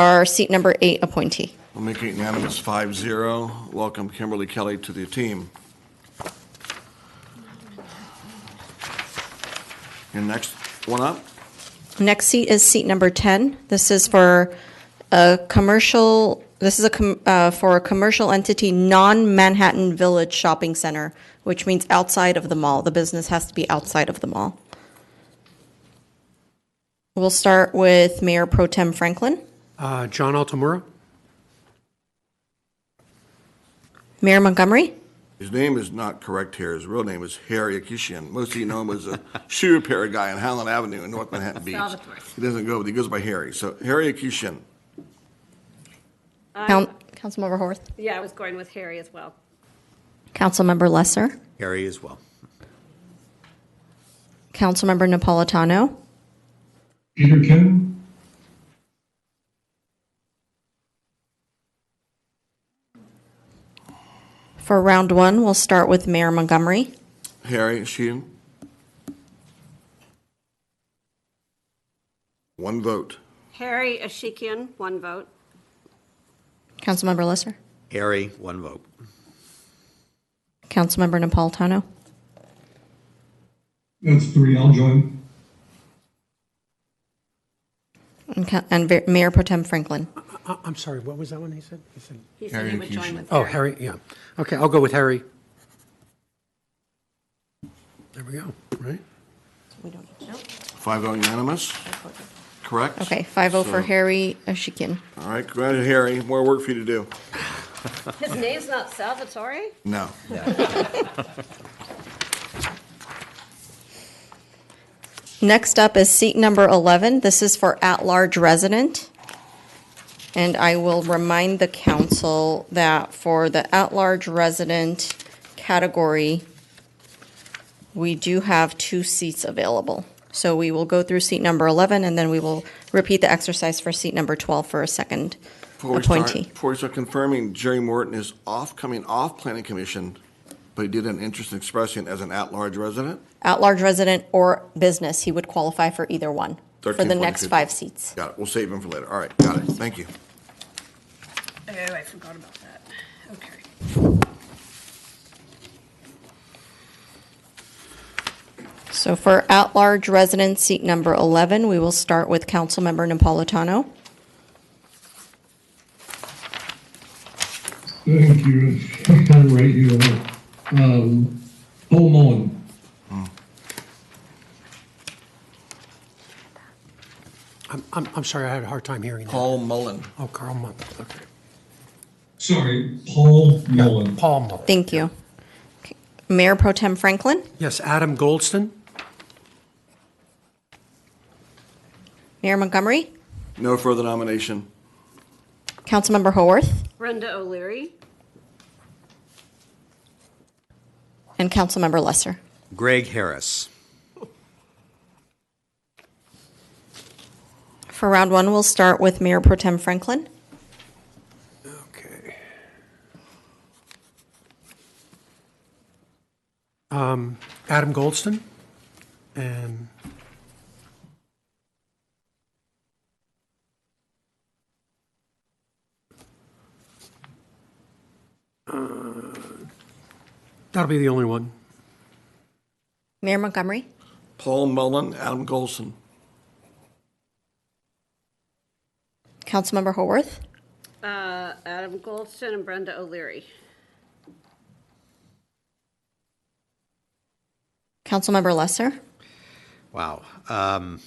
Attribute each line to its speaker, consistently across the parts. Speaker 1: our seat number eight appointee.
Speaker 2: We'll make it unanimous, five zero. Welcome Kimberly Kelly to the team. Your next one up?
Speaker 1: Next seat is seat number 10. This is for a commercial, this is a, com- uh, for a commercial entity, non-Manhattan Village Shopping Center, which means outside of the mall. The business has to be outside of the mall. We'll start with Mayor Pro Tem Franklin.
Speaker 3: Uh, John Altamura?
Speaker 1: Mayor Montgomery?
Speaker 2: His name is not correct here. His real name is Harry Akishian. Most of you know him as a shoe repair guy on Howland Avenue in North Manhattan Beach.
Speaker 4: Salvatore.
Speaker 2: He doesn't go, but he goes by Harry. So Harry Akishian.
Speaker 1: Coun- Councilmember Horwath?
Speaker 4: Yeah, I was going with Harry as well.
Speaker 1: Councilmember Lesser?
Speaker 5: Harry as well.
Speaker 1: Councilmember Napolitano?
Speaker 6: Peter Kim,
Speaker 1: For round one, we'll start with Mayor Montgomery.
Speaker 2: Harry Sheehan. One vote.
Speaker 4: Harry Ashikian, one vote.
Speaker 1: Councilmember Lesser?
Speaker 5: Harry, one vote.
Speaker 1: Councilmember Napolitano?
Speaker 6: that's three, I'll join.
Speaker 1: And Ca- And Ver- Mayor Pro Tem Franklin.
Speaker 3: I- Uh, I'm sorry, what was that one he said? He said,
Speaker 4: He said he would join with
Speaker 3: oh,
Speaker 4: Harry.
Speaker 3: Harry, yeah. Okay, I'll go with Harry. There we go, right?
Speaker 2: Five oh unanimous, correct?
Speaker 1: Okay, 5-0 for
Speaker 2: So-
Speaker 1: Harry Ashikian.
Speaker 2: All right, go ahead, Harry. More work for you to do.
Speaker 4: His name's not Salvatore?
Speaker 2: No.
Speaker 1: Next up is seat number 11. This is for at-large resident. And I will remind the council that for the at-large resident category, we do have two seats available. So we will go through seat number 11, and then we will repeat the exercise for seat number 12 for a second
Speaker 2: Before we start-
Speaker 1: appointee.
Speaker 2: Before we start confirming, Jerry Morton is off, coming off Planning Commission, but he did an interest in expressing as an at-large resident.
Speaker 1: At-large resident or business, he would qualify for either one, for the
Speaker 2: 13.42.
Speaker 1: next five seats.
Speaker 2: Got it. We'll save him for later. All right, got it. Thank you.
Speaker 4: Oh, I forgot about that. Okay.
Speaker 1: So for at-large resident, seat number 11, we will start with Councilmember Napolitano.
Speaker 6: Thank you, I'm right here. Um, Paul Mullen,
Speaker 3: I'm, I'm, I'm sorry, I had a hard time hearing that.
Speaker 2: Paul Mullen.
Speaker 3: Oh, Carl Mumm, okay.
Speaker 6: sorry, Paul Mullen.
Speaker 3: Paul Mumm.
Speaker 1: Thank you. Okay. Mayor Pro Tem Franklin,
Speaker 3: Yes, Adam Goldston?
Speaker 1: Mayor Montgomery,
Speaker 2: No further nomination.
Speaker 1: Councilmember Haworth,
Speaker 4: Brenda O'Leary,
Speaker 1: and Councilmember Lesser.
Speaker 5: Greg Harris.
Speaker 1: For round one, we'll start with Mayor Pro Tem Franklin.
Speaker 3: Okay. Um, Adam Goldston? And Uh, that'll be the only one.
Speaker 1: Mayor Montgomery,
Speaker 2: Paul Mullen, Adam Golson.
Speaker 1: Councilmember Haworth,
Speaker 4: uh, Adam Goldston, and Brenda O'Leary.
Speaker 1: Councilmember Lesser,
Speaker 5: Wow. Um,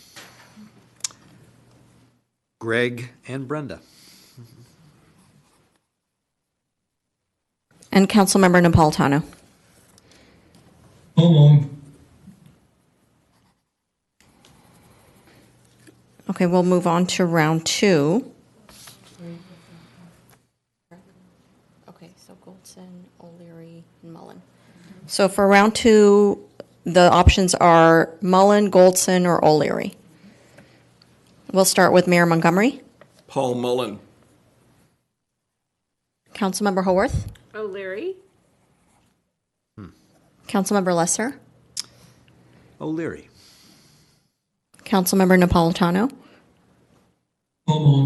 Speaker 5: Greg and Brenda.
Speaker 1: and Councilmember Napolitano.
Speaker 6: Paul Mullen,
Speaker 1: Okay, we'll move on to round two. Okay, so Goldson, O'Leary, and Mullen. So for round two, the options are Mullen, Goldson, or O'Leary. We'll start with Mayor Montgomery.
Speaker 2: Paul Mullen.
Speaker 1: Councilmember Haworth.
Speaker 4: O'Leary,
Speaker 1: Councilmember Lesser.
Speaker 5: O'Leary.
Speaker 1: Councilmember Napolitano.
Speaker 6: Paul Mullen.